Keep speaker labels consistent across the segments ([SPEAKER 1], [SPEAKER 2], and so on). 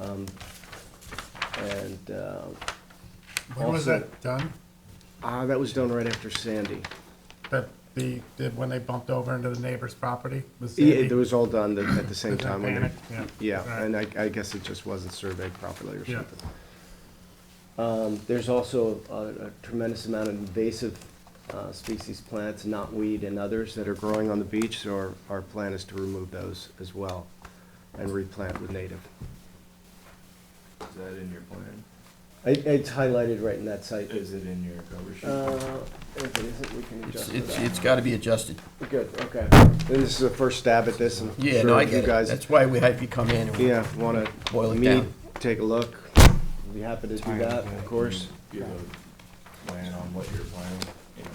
[SPEAKER 1] Um, And uh,
[SPEAKER 2] When was
[SPEAKER 1] Also-
[SPEAKER 2] that done?
[SPEAKER 1] ah, that was done right after Sandy.
[SPEAKER 2] That the, did, when they bumped over into the neighbor's property? Was
[SPEAKER 1] Yeah,
[SPEAKER 2] Sandy-
[SPEAKER 1] It was all done the- at the same
[SPEAKER 2] was that
[SPEAKER 1] time. when they-
[SPEAKER 2] panic? Yeah.
[SPEAKER 1] Yeah,
[SPEAKER 2] Alright.
[SPEAKER 1] and I I guess it just wasn't surveyed properly or
[SPEAKER 2] Yeah.
[SPEAKER 1] something. Um, There's also a a tremendous amount of invasive uh, species plants, knotweed and others that are growing on the beach, so our- our plan is to remove those as well and replant with native.
[SPEAKER 3] Is that in your plan?
[SPEAKER 1] I- It's highlighted right in that site.
[SPEAKER 3] Is it in your cover sheet?
[SPEAKER 1] Uh, If it isn't, we can
[SPEAKER 4] It's,
[SPEAKER 1] adjust it
[SPEAKER 4] it's,
[SPEAKER 1] out.
[SPEAKER 4] it's gotta be adjusted.
[SPEAKER 1] Good, okay. And this is the first stab at this, and
[SPEAKER 4] Yeah, no,
[SPEAKER 1] sure
[SPEAKER 4] I
[SPEAKER 1] if you
[SPEAKER 4] get it.
[SPEAKER 1] guys,
[SPEAKER 4] That's why we have you come in and
[SPEAKER 1] yeah, want
[SPEAKER 4] Boil
[SPEAKER 1] to
[SPEAKER 4] it
[SPEAKER 1] meet,
[SPEAKER 4] down.
[SPEAKER 1] take a look, be happy to do that, of course.
[SPEAKER 3] Give a plan on what you're planning, in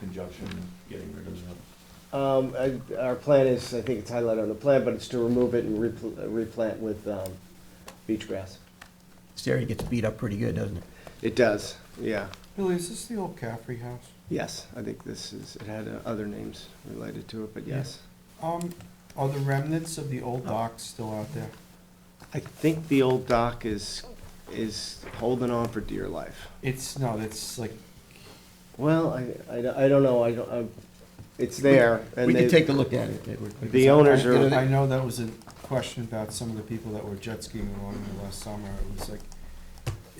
[SPEAKER 3] conjunction with getting rid of them.
[SPEAKER 1] Um, I- Our plan is, I think it's highlighted on the plan, but it's to remove it and repl- uh, replant with um, beach grass.
[SPEAKER 4] this area gets beat up pretty good, doesn't it?
[SPEAKER 1] It does, yeah.
[SPEAKER 5] Billy, is this the old Caffrey house?
[SPEAKER 1] Yes, I think this is, it had uh, other names related to it, but yes.
[SPEAKER 5] Um, are the remnants of the old docks still out there?
[SPEAKER 1] I think the old dock is, is holding on for dear life.
[SPEAKER 5] It's, no, it's like,
[SPEAKER 1] Well, I, I don't- I don't know, I don't, I'm- it's there. and
[SPEAKER 4] We
[SPEAKER 1] they-
[SPEAKER 4] can take a look at it. Edward.
[SPEAKER 1] The owners
[SPEAKER 5] I-
[SPEAKER 1] are-
[SPEAKER 5] I know that was a question about some of the people that were jet skiing along there last summer, it was like,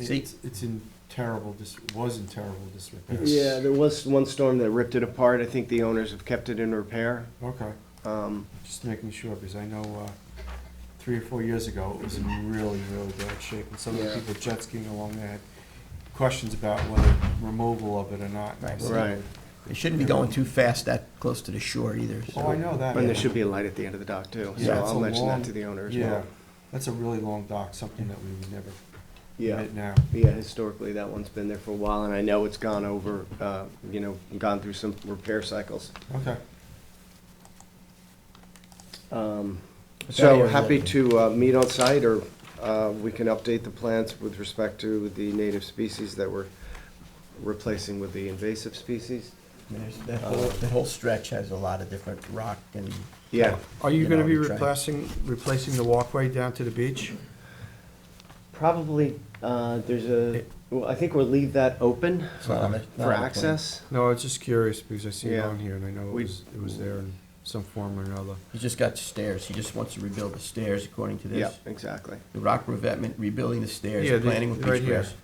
[SPEAKER 4] See?
[SPEAKER 5] it's, it's in terrible, dis- was in terrible disrepair.
[SPEAKER 1] Yeah, there was one storm that ripped it apart. I think the owners have kept it in repair.
[SPEAKER 5] Okay,
[SPEAKER 1] Um,
[SPEAKER 5] just making sure, because I know, uh, three or four years ago, it was in really, really bad shape, and some of the
[SPEAKER 1] Yeah.
[SPEAKER 5] people jet skiing along there had questions about whether removal of it or not.
[SPEAKER 4] Right.
[SPEAKER 5] So-
[SPEAKER 1] Right.
[SPEAKER 4] They shouldn't be going too fast that close to the shore either. so-
[SPEAKER 5] Oh, I know that.
[SPEAKER 1] And there should be a light at the end of the dock too, so
[SPEAKER 4] Yeah,
[SPEAKER 5] it's
[SPEAKER 1] I'll
[SPEAKER 5] a
[SPEAKER 1] mention that
[SPEAKER 5] long-
[SPEAKER 1] to the owner as
[SPEAKER 5] Yeah,
[SPEAKER 1] well.
[SPEAKER 5] that's a really long dock, something that we would never
[SPEAKER 1] Yeah,
[SPEAKER 5] admit now.
[SPEAKER 1] yeah, historically, that one's been there for a while, and I know it's gone over, uh, you know, gone through some repair cycles.
[SPEAKER 5] Okay,
[SPEAKER 1] Um,
[SPEAKER 4] But that
[SPEAKER 1] So
[SPEAKER 4] area-
[SPEAKER 1] happy to uh, meet on site, or uh, we can update the plans with respect to the native species that we're replacing with the invasive species.
[SPEAKER 4] There's That whole, that whole stretch has a lot of different rock and.
[SPEAKER 1] Yeah,
[SPEAKER 5] are you
[SPEAKER 4] You
[SPEAKER 5] gonna
[SPEAKER 4] know,
[SPEAKER 5] be
[SPEAKER 4] we try.
[SPEAKER 5] replacing, replacing the walkway down to the beach?
[SPEAKER 1] probably, uh, there's a, well, I think we'll leave that open uh,
[SPEAKER 4] it's not on the- not on
[SPEAKER 1] for
[SPEAKER 4] the plan.
[SPEAKER 1] access.
[SPEAKER 5] No, I was just curious, because I see it
[SPEAKER 1] Yeah.
[SPEAKER 5] on here, and I know it
[SPEAKER 1] We-
[SPEAKER 5] was, it was there in some form or another.
[SPEAKER 4] He's just got stairs. He just wants to rebuild the stairs according to
[SPEAKER 1] Yeah,
[SPEAKER 4] this.
[SPEAKER 1] exactly.
[SPEAKER 4] The rock revetment, rebuilding the stairs,
[SPEAKER 5] Yeah, the-
[SPEAKER 4] planting with
[SPEAKER 5] right
[SPEAKER 4] beach
[SPEAKER 5] here.
[SPEAKER 4] grass.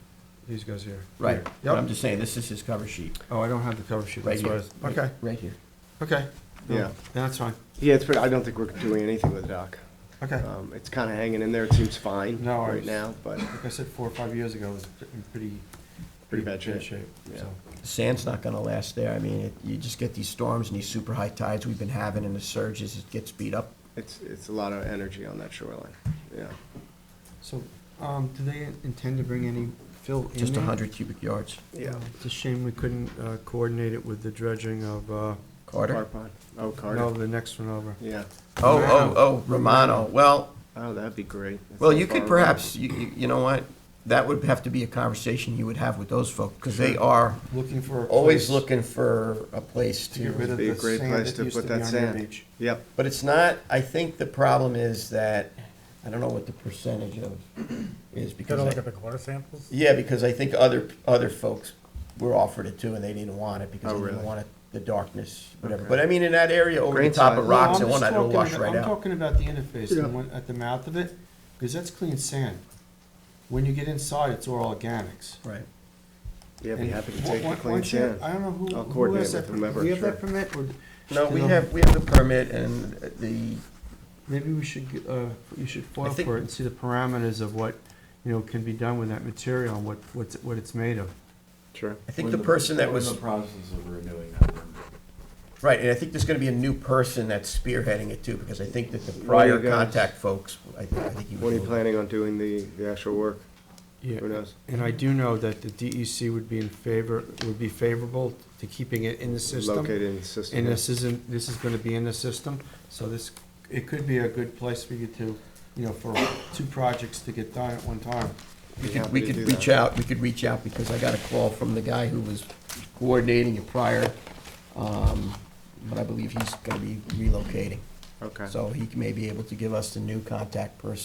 [SPEAKER 5] These guys here.
[SPEAKER 4] Right, but I'm
[SPEAKER 5] Yep,
[SPEAKER 4] just saying, this is his cover sheet,
[SPEAKER 5] oh, I don't have the cover sheet,
[SPEAKER 4] right
[SPEAKER 5] that's why
[SPEAKER 4] here.
[SPEAKER 5] I was, okay,
[SPEAKER 4] Right here.
[SPEAKER 5] okay.
[SPEAKER 4] Oh.
[SPEAKER 5] No,
[SPEAKER 1] Yeah.
[SPEAKER 5] That's fine,
[SPEAKER 1] Yeah, it's, pretty- I don't think we're doing anything with the dock.
[SPEAKER 5] okay.
[SPEAKER 1] Um, It's kind of hanging in there, it seems fine
[SPEAKER 5] No, I
[SPEAKER 1] right
[SPEAKER 5] was-
[SPEAKER 1] now, but
[SPEAKER 5] Like I said, four or five years ago, it was in pretty.
[SPEAKER 1] Pretty bad shape. Yeah.
[SPEAKER 5] so.
[SPEAKER 4] The Sand's not gonna last there. I mean, it, you just get these storms and these super high tides we've been having and the surges, it gets beat up.
[SPEAKER 1] it's, it's a lot of energy on that shoreline, yeah.
[SPEAKER 5] So, um, do they intend to bring any fill in there?
[SPEAKER 4] Just a hundred cubic yards.
[SPEAKER 1] Yeah.
[SPEAKER 5] It's a shame we couldn't uh, coordinate it with the dredging of, uh,
[SPEAKER 4] Carter?
[SPEAKER 1] Carpon, oh,
[SPEAKER 5] no,
[SPEAKER 1] Carter,
[SPEAKER 5] the next one over.
[SPEAKER 1] yeah.
[SPEAKER 4] Oh, oh, oh, Romano. Well,
[SPEAKER 1] Oh, that'd be great. That's
[SPEAKER 4] well,
[SPEAKER 1] so
[SPEAKER 4] you
[SPEAKER 1] far
[SPEAKER 4] could
[SPEAKER 1] away.
[SPEAKER 4] perhaps, you, you- you know what? That would have to be a conversation you would have with those folks, because they are
[SPEAKER 5] Looking for a
[SPEAKER 4] always
[SPEAKER 5] place
[SPEAKER 4] looking for a place
[SPEAKER 5] To get rid
[SPEAKER 4] to.
[SPEAKER 5] of
[SPEAKER 1] Be a
[SPEAKER 5] the
[SPEAKER 1] great
[SPEAKER 5] sand
[SPEAKER 1] place
[SPEAKER 5] that
[SPEAKER 1] to
[SPEAKER 5] used
[SPEAKER 1] put
[SPEAKER 5] to
[SPEAKER 1] that
[SPEAKER 5] be on your
[SPEAKER 1] sand.
[SPEAKER 5] beach.
[SPEAKER 1] Yep,
[SPEAKER 4] But it's not, I think the problem is that, I don't know what the percentage of is, because.
[SPEAKER 2] Gotta
[SPEAKER 4] I-
[SPEAKER 2] look at the water samples?
[SPEAKER 4] Yeah, because I think other, other folks were offered it too, and they didn't want it because
[SPEAKER 1] Oh,
[SPEAKER 4] they didn't
[SPEAKER 1] really?
[SPEAKER 4] want it, the darkness, whatever.
[SPEAKER 1] Okay.
[SPEAKER 4] But I mean, in that area over the
[SPEAKER 1] Grain
[SPEAKER 4] top
[SPEAKER 1] size.
[SPEAKER 4] of
[SPEAKER 1] No,
[SPEAKER 4] rocks, and
[SPEAKER 5] No, I'm
[SPEAKER 4] one,
[SPEAKER 5] just
[SPEAKER 4] it'll
[SPEAKER 5] talking
[SPEAKER 4] wash
[SPEAKER 5] about-
[SPEAKER 4] right
[SPEAKER 5] I'm
[SPEAKER 4] out.
[SPEAKER 5] talking about the interface,
[SPEAKER 1] Yeah.
[SPEAKER 5] the one at the mouth of it, because that's clean sand. When you get inside, it's all organics.
[SPEAKER 4] Right.
[SPEAKER 1] yeah, be
[SPEAKER 5] And
[SPEAKER 1] happy to
[SPEAKER 5] wha-
[SPEAKER 1] take
[SPEAKER 5] wha-
[SPEAKER 1] the clean
[SPEAKER 5] once you-
[SPEAKER 1] sand.
[SPEAKER 5] I don't know who,
[SPEAKER 1] I'll
[SPEAKER 5] who
[SPEAKER 1] coordinate
[SPEAKER 5] has that,
[SPEAKER 1] with
[SPEAKER 5] per-
[SPEAKER 1] whomever,
[SPEAKER 5] do you have that
[SPEAKER 1] sure.
[SPEAKER 5] permit, or
[SPEAKER 4] No, we
[SPEAKER 5] No.
[SPEAKER 4] have, we have the permit and the,
[SPEAKER 5] maybe we should, g- uh, you should foil
[SPEAKER 4] think-
[SPEAKER 5] for it and see the parameters of what, you know, can be done with that material, and what, what's, what it's made of.
[SPEAKER 1] Sure.
[SPEAKER 4] I think the person that
[SPEAKER 3] We're in
[SPEAKER 4] was,
[SPEAKER 3] the process of renewing that one.
[SPEAKER 4] right, and I think there's gonna be a new person that's spearheading it too, because I think that the
[SPEAKER 1] What do you
[SPEAKER 4] prior
[SPEAKER 1] guys-
[SPEAKER 4] contact folks, I think, I think he was.
[SPEAKER 1] When are you
[SPEAKER 4] a little-
[SPEAKER 1] planning on doing the, the actual work?
[SPEAKER 5] Yeah,
[SPEAKER 1] Who knows?
[SPEAKER 5] and I do know that the DEC would be in favor, would be favorable to keeping it in the system.
[SPEAKER 1] Located in the system.
[SPEAKER 5] And this isn't, this is gonna be in the system, so this, it could be a good place for you to, you know, for two projects to get done at one time.
[SPEAKER 1] Be
[SPEAKER 4] We could,
[SPEAKER 1] happy
[SPEAKER 4] we
[SPEAKER 1] to
[SPEAKER 4] could
[SPEAKER 1] do
[SPEAKER 4] reach
[SPEAKER 1] that.
[SPEAKER 4] out, we could reach out, because I got a call from the guy who was coordinating it prior, um, but I believe he's gonna be relocating.
[SPEAKER 1] Okay.
[SPEAKER 4] So he may be able to give us the new contact person.